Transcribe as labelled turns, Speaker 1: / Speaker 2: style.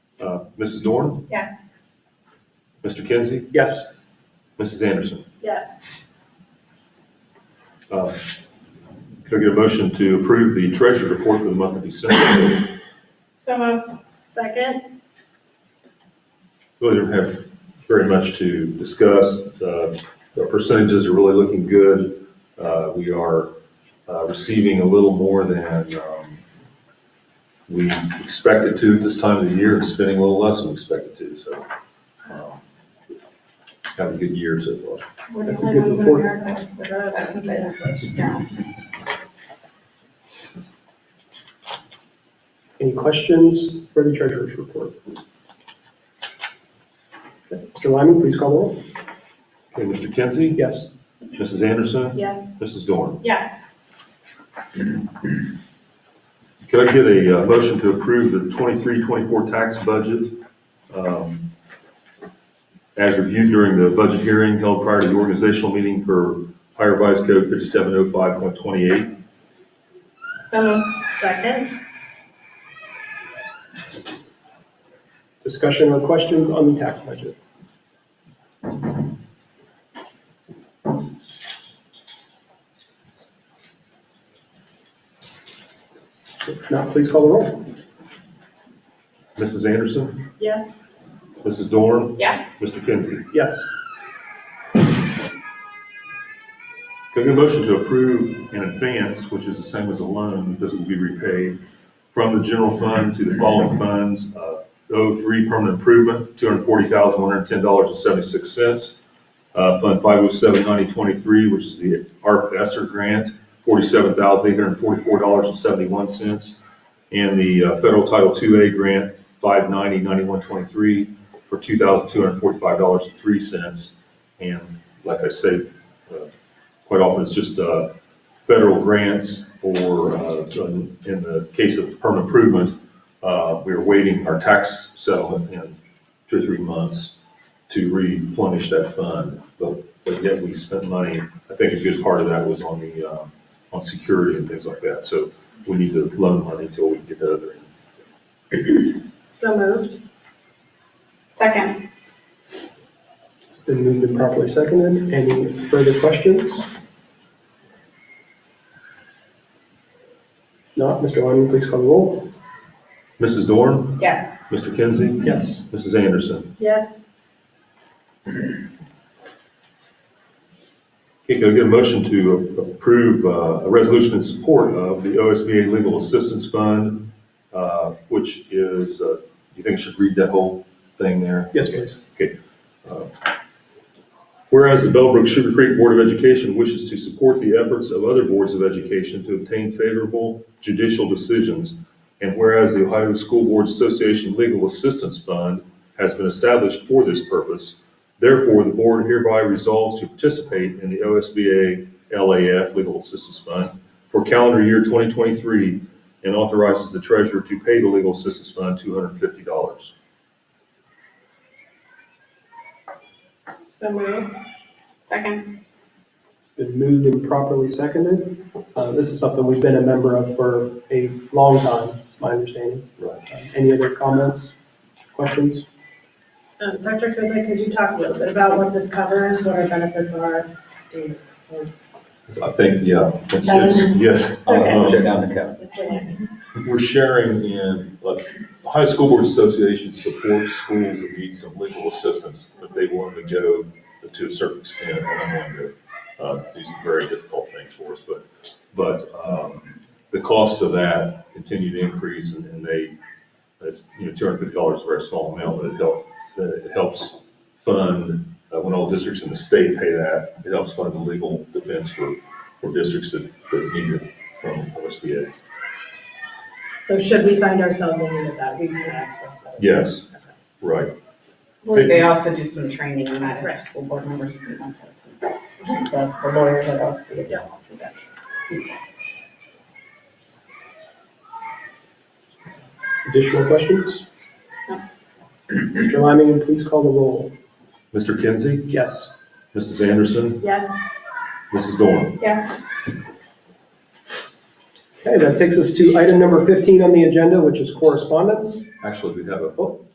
Speaker 1: Uh, Mrs. Norton,
Speaker 2: Yes.
Speaker 1: Mr. Kinsey,
Speaker 3: Yes.
Speaker 1: Mrs. Anderson.
Speaker 2: Yes.
Speaker 1: Uh, Could I get a motion to approve the treasurer's report for the month of December?
Speaker 2: So moved. Second?
Speaker 1: Really don't have very much to discuss. Uh, The percentages are really looking good. Uh, We are uh, receiving a little more than um, we expected to at this time of the year and spending a little less than we expected to, so. um, Have a good year so far.
Speaker 3: That's a good report.
Speaker 2: I can say that. Yeah.
Speaker 3: Any questions for the treasurer's report? Okay, Mr. Lyman, please call the roll.
Speaker 1: Okay, Mr. Kinsey,
Speaker 3: Yes.
Speaker 1: Mrs. Anderson,
Speaker 2: Yes.
Speaker 1: Mrs. Dorn.
Speaker 2: Yes.
Speaker 1: Could I get a uh, motion to approve the 23-24 tax budget um, as reviewed during the budget hearing held prior to the organizational meeting per Ohio Revised Code fifty-seven oh five point twenty-eight?
Speaker 2: So moved. Second?
Speaker 3: Discussion or questions on the tax budget? If not, please call the roll.
Speaker 1: Mrs. Anderson,
Speaker 2: Yes.
Speaker 1: Mrs. Dorn,
Speaker 2: Yes.
Speaker 1: Mr. Kinsey.
Speaker 3: Yes.
Speaker 1: Could I get a motion to approve an advance, which is the same as a loan because it will be repaid from the general fund to the following funds? uh, O three permanent improvement, two hundred forty thousand, one hundred ten dollars and seventy-six cents. Fund five oh seven ninety twenty-three, which is the ARP ESSER grant, forty-seven thousand, eight hundred forty-four dollars and seventy-one cents. And the uh, federal Title II A grant, five ninety, ninety-one twenty-three, for two thousand, two hundred forty-five dollars and three cents. And like I say, uh, quite often it's just uh, federal grants or, uh, in in the case of permanent improvement, uh, we are waiting our tax settlement in two or three months to replenish that fund. But, but yet we spent money, I think a good part of that was on the, um, on security and things like that. So we need to loan money till we can get the other. end.
Speaker 2: So moved. Second?
Speaker 3: It's been moved and properly seconded. Any further questions? Not, Mr. Lyman, please call the roll.
Speaker 1: Mrs. Dorn,
Speaker 2: Yes.
Speaker 1: Mr. Kinsey,
Speaker 3: Yes.
Speaker 1: Mrs. Anderson.
Speaker 2: Yes.
Speaker 1: Okay, can I get a motion to approve uh, a resolution in support of the OSBA Legal Assistance Fund, uh, which is, uh, you think I should read that whole thing there?
Speaker 3: Yes, please.
Speaker 1: uh, Whereas the Bellbrook Sugar Creek Board of Education wishes to support the efforts of other boards of education to obtain favorable judicial decisions, and whereas the Ohio School Boards Association Legal Assistance Fund has been established for this purpose, therefore the board hereby resolves to participate in the OSBA LAF Legal Assistance Fund for calendar year 2023 and authorizes the treasurer to pay the Legal Assistance Fund $250.
Speaker 2: So moved. Second?
Speaker 3: Been moved and properly seconded. Uh, This is something we've been a member of for a long time, is my understanding.
Speaker 1: Right.
Speaker 3: Uh, Any other comments, questions?
Speaker 4: Um, Dr. Kozak, could you talk a little bit about what this covers, what our benefits are? and-
Speaker 1: I think, yeah, it's, it's, yes.
Speaker 4: Okay.
Speaker 1: Um,
Speaker 5: Check down the cap.
Speaker 4: this way?
Speaker 1: we're sharing in, like, Ohio School Boards Association supports schools that need some legal assistance, but they want to go to a certain extent, and I'm going to, uh, do some very difficult things for us, but, but, um, the costs of that continue to increase, and, and they, that's, you know, two hundred fifty dollars is a very small amount, but it help, that it helps fund, uh, when all districts in the state pay that, it helps fund the legal defense for, for districts that, that need it from OSBA.
Speaker 4: So should we find ourselves in need of that, we can access that.
Speaker 1: Yes, right.
Speaker 6: Well, they also do some training on that,
Speaker 4: Right.
Speaker 6: if school board members can contact them. The the lawyers that also do that.
Speaker 3: Additional questions? Mr. Lyman, please call the roll.
Speaker 1: Mr. Kinsey,
Speaker 3: Yes.
Speaker 1: Mrs. Anderson,
Speaker 4: Yes,
Speaker 1: Mrs. Dorn.
Speaker 2: Yes.
Speaker 3: Okay, that takes us to item number 15 on the agenda, which is correspondence.
Speaker 1: Actually, we have a, oh,